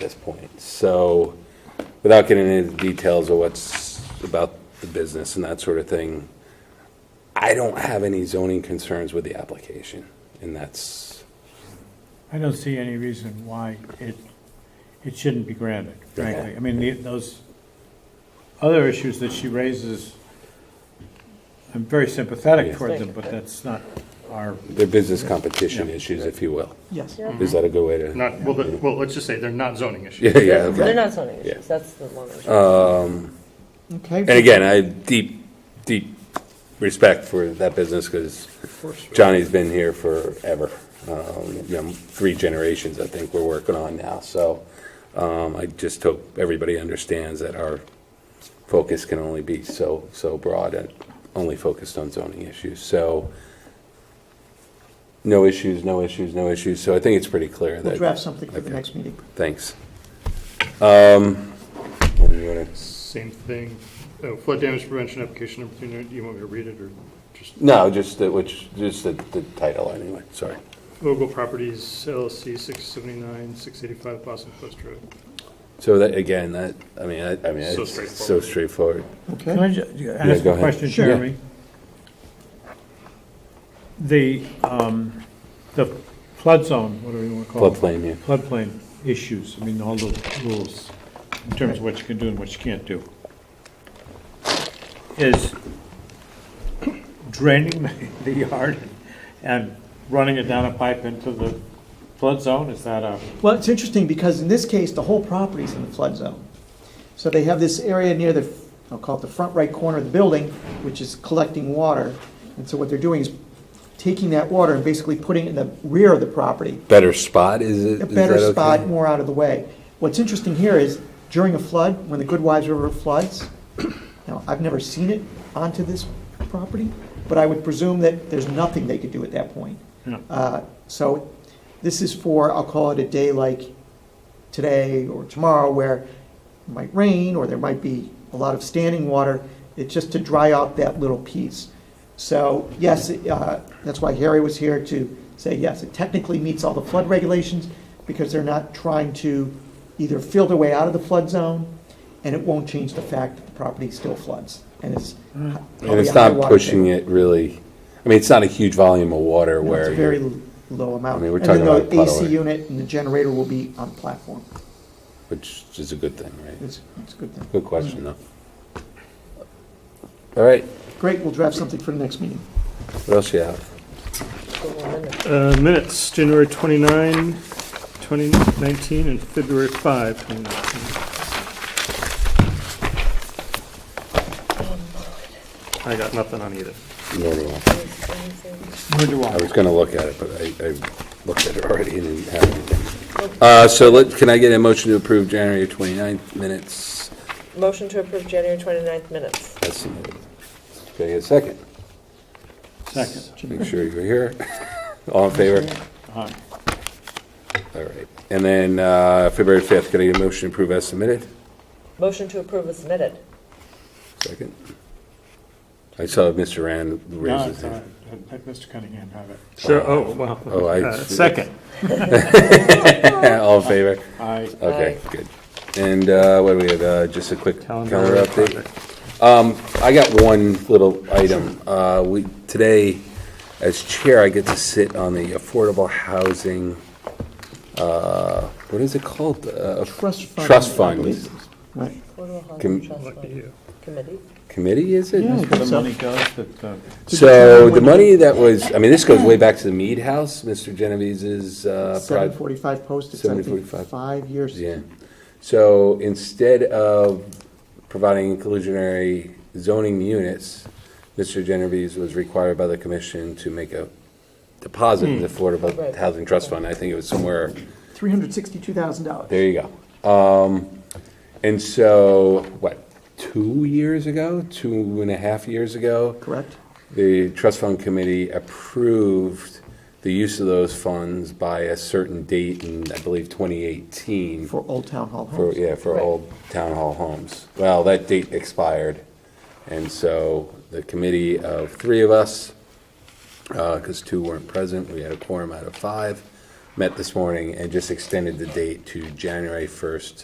this point. So, without getting into the details of what's about the business and that sort of thing, I don't have any zoning concerns with the application, and that's, I don't see any reason why it, it shouldn't be granted, frankly. Okay. I mean, the- those other issues that she raises, I'm very sympathetic Yes. toward them, but that's not our, they're business competition Yeah. issues, if you will. Yes. Is that a good way to? Not, well, the- well, let's just say they're not zoning issues. Yeah, yeah, okay. They're not zoning Yeah. Uh, issues, that's the one. issue. Okay. And again, I have deep, deep respect for that business because Johnny's been here forever. Um, You know, three generations, I think, we're working on now. So um, I just hope everybody understands that our focus can only be so, so broad and only focused on zoning issues. So no issues, no issues, no issues. So I think it's pretty clear We'll that. draft something for the Okay. next meeting. Thanks. Um, you wanna- Same thing, oh, flood damage prevention application number two, do you want me to read it or just? No, just the, which, just the, the title anyway, sorry. Ogle Properties LLC, 679, 685 Boston Post Road. So that, again, that, I mean, I, I mean, So it's so straightforward. straightforward. Okay. can I ju- ask go a ahead. question, Sure. Jeremy? The, um, the flood zone, whatever you want to call it. Floodplain, yeah. Floodplain issues, I mean, all the rules in terms of what you can do and what you can't do. Is draining the- the yard and running it down a pipe into the flood zone, is that a, Well, it's interesting because in this case, the whole property's in the flood zone. So they have this area near the, I'll call it the front right corner of the building, which is collecting water. And so what they're doing is taking that water and basically putting it in the rear of the property. Better spot, is it? A is better that okay? spot, more out of the way. What's interesting here is during a flood, when the Goodwives River floods, now, I've never seen it onto this property, but I would presume that there's nothing they could do at that point. Yeah. Uh, So this is for, I'll call it a day like today or tomorrow where it might rain or there might be a lot of standing water. It's just to dry out that little piece. So yes, uh, that's why Harry was here to say, yes, it technically meets all the flood regulations because they're not trying to either fill their way out of the flood zone and it won't change the fact that the property still floods and it's. And it's not pushing it really, I mean, it's not a huge volume of water No, It's where a very you're- l- low I amount. mean, we're talking about And then the AC puddle. unit and the generator will be on platform. which is a good thing, right? It's, it's a good thing. Good question, though. All right, Great, we'll draft something for the next meeting. what else you have? It's the one in the- Uh, Minutes, January 29, 2019, and February 5, 2019. I got nothing on either. No, no, no. where do I I? was gonna look at it, but I, I looked at it already and didn't have anything. Uh, so let, can I get a motion to approve January 29th minutes Motion to approve January 29th minutes. as submitted? Can I get a second? Second. Make sure you're here. All in favor? Aye. All right. And then uh, February 5th, can I get a motion to approve as submitted? Motion to approve is submitted. Second. I saw Mr. Rand raise No, his it's all right. hand. Let Mr. Cunningham have it. Sure, oh, wow. Oh, I- Uh, Second. All in favor? I, Okay, good. And uh, what do we have, Uh, just a quick calendar update? Um, project. I got one little item. Uh, We, today, as chair, I get to sit on the Affordable Housing, uh, what is it called? Uh, Trust fund. Trust I fund. believe. Right. Affordable Housing Can- Trust Look at Fund you. Committee. Committee, is it? Yeah, I that's where think the so. money goes, that, uh, So the money that was, I mean, this goes way back to the Mead House, Mr. Genovese's, uh, Seven project. forty-five posted, I think, 745. five years. Yeah. So instead of providing inclusionary zoning units, Mr. Genovese was required by the commission to make a deposit in the Affordable Right. Housing Trust Fund. I think it was somewhere Three hundred sixty-two thousand dollars. There you go. Um, and so, what, two years ago, two and a half years ago, Correct? the trust fund committee approved the use of those funds by a certain date in, I believe, 2018. For Old Town Hall For, homes. yeah, for Right. old town hall homes. Well, that date expired, and so the committee uh, of three of us, because two weren't present, we had a quorum out of five, met this morning and just extended the date to January 1st,